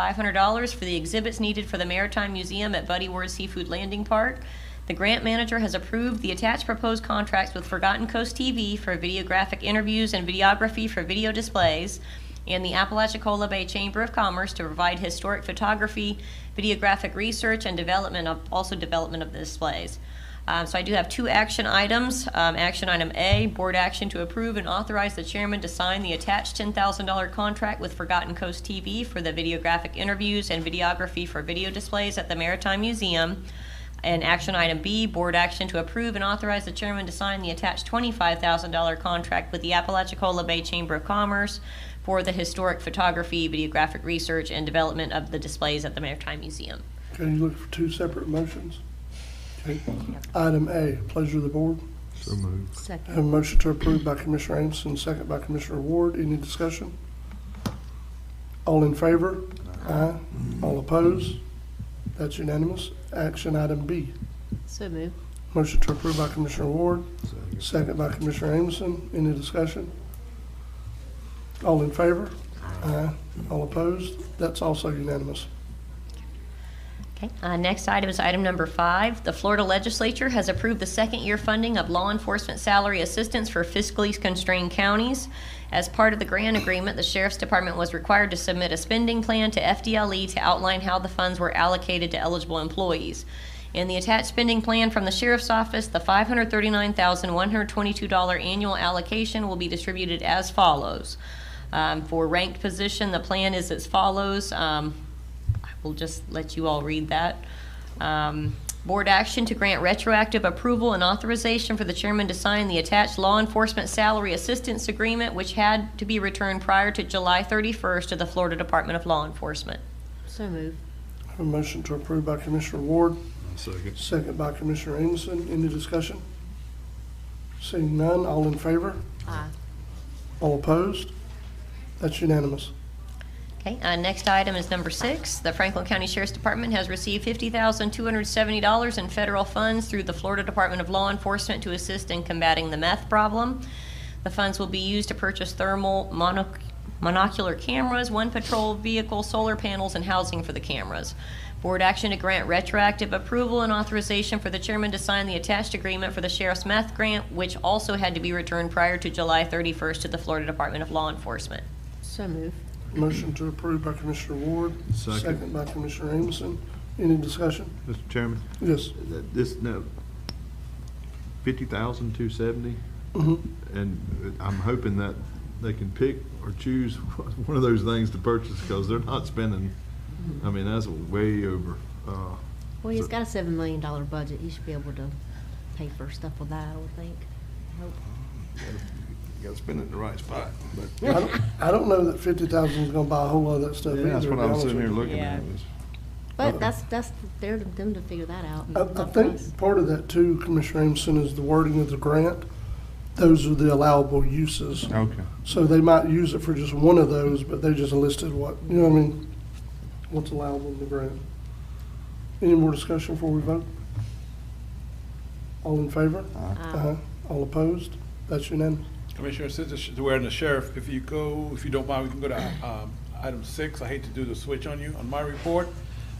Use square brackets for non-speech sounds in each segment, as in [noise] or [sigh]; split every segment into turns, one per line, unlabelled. $1,500 for the exhibits needed for the Maritime Museum at Buddy Ward Seafood Landing Park. The grant manager has approved the attached proposed contracts with Forgotten Coast TV for videographic interviews and videography for video displays, and the Apalachicola Bay Chamber of Commerce to provide historic photography, videographic research, and development of, also development of the displays. Um, So I do have two action items. Um, Action item A, board action to approve and authorize the chairman to sign the attached $10,000 contract with Forgotten Coast TV for the videographic interviews and videography for video displays at the Maritime Museum. And action item B, board action to approve and authorize the chairman to sign the attached $25,000 contract with the Apalachicola Bay Chamber of Commerce for the historic photography, videographic research, and development of the displays at the Maritime Museum.
Can you look for two separate motions? Okay. Item A, pleasure of the board.
So moved.
Have a motion to approve by Commissioner Anderson, second by Commissioner Ward. Any discussion? All in favor? Aye. All opposed? That's unanimous. Action item B,
So move.
motion to approve by Commissioner Ward,
Second.
second by Commissioner Anderson. Any discussion? All in favor? Aye. All opposed? That's also unanimous.
Okay, uh, next item is item number five. The Florida Legislature has approved the second-year funding of law enforcement salary assistance for fiscally constrained counties. As part of the grant agreement, the Sheriff's Department was required to submit a spending plan to FDLE E to outline how the funds were allocated to eligible employees. In the attached spending plan from the Sheriff's Office, the $539,122 annual allocation will be distributed as follows. Um, For ranked position, the plan is as follows. Um, I will just let you all read that. Um, Board action to grant retroactive approval and authorization for the chairman to sign the attached law enforcement salary assistance agreement, which had to be returned prior to July 31st to the Florida Department of Law Enforcement.
So move.
Have a motion to approve by Commissioner Ward,
Second.
Second by Commissioner Amison. Any discussion? Seeing none, all in favor?
Aye.
All opposed? That's unanimous.
Okay, uh, next item is number six. The Franklin County Sheriff's Department has received $50,270 in federal funds through the Florida Department of Law Enforcement to assist in combating the meth problem. The funds will be used to purchase thermal monoc- monocular cameras, one patrol vehicle, solar panels, and housing for the cameras. Board action to grant retroactive approval and authorization for the chairman to sign the attached agreement for the sheriff's meth grant, which also had to be returned prior to July 31st to the Florida Department of Law Enforcement.
So move.
Motion to approve by Commissioner Ward.
Second.
by Commissioner Amison. Any discussion?
Mr. Chairman,
Yes.
th- this, no, fifty thousand two seventy,
Mhm.
and I'm hoping that they can pick or choose [laughs] one of those things to purchase, because they're not spending, I mean, that's way over. uh,
Well, he's
so-
got a seven million dollar budget. He should be able to pay for stuff with that, I would think. I hope.
Gotta spend it in the right spot, but.
I don't- I don't know that fifty thousand is gonna buy a whole lot of that stuff either.
Yeah, That's what
to
I
be honest
was sitting here
with you.
looking at,
Yeah.
was,
But that's, that's, they're to- them to figure that out. not
I, I
for us.
think part of that too, Commissioner Amison, is the wording of the grant. Those are the allowable uses.
okay.
So they might use it for just one of those, but they just listed what, you know what I mean? What's allowable in the grant. Any more discussion before we vote? All in favor? Uh-huh.
Aye.
All opposed? That's unanimous.
Commissioner, since it's- we're in the sheriff, if you go, if you don't mind, we can go to um, item six. I hate to do the switch on you, on my report.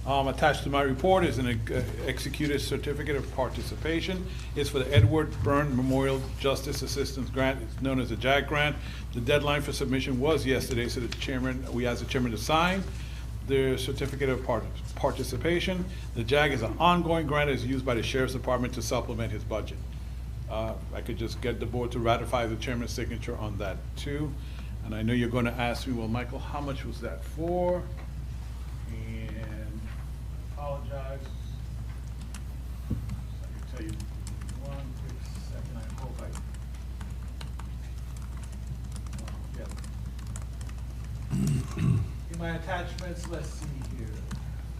Um, Attached to my report is an ex- uh, executed certificate of participation. It's for the Edward Byrne Memorial Justice Assistance Grant, it's known as the JAG Grant. The deadline for submission was yesterday, so the chairman, we asked the chairman to sign the certificate of part- participation. The JAG is an ongoing grant, it's used by the sheriff's department to supplement his budget. Uh, I could just get the board to ratify the chairman's signature on that too. And I know you're going to ask me, well, Michael, how much was that for? And apologize. I can tell you, one quick second, I hope I. Yep. In my attachments, let's see here.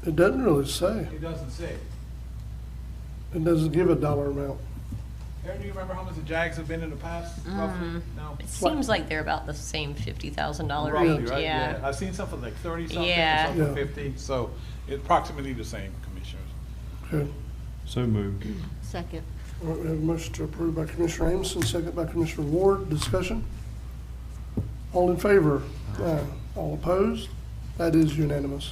It doesn't really say.
It doesn't say.
It doesn't give a dollar amount.
Aaron, do you remember how much the Jags have been in the past roughly? No?
It seems like they're about the same $50,000
Roughly,
range,
right?
yeah.
I've seen something like thirty something,
Yeah.
something
Yeah.
fifty, so it's approximately the same, Commissioners.
Okay.
So moved.
Second.
All right, we have a motion to approve by Commissioner Amison, second by Commissioner Ward. Discussion? All in favor? Aye. All opposed? That is unanimous.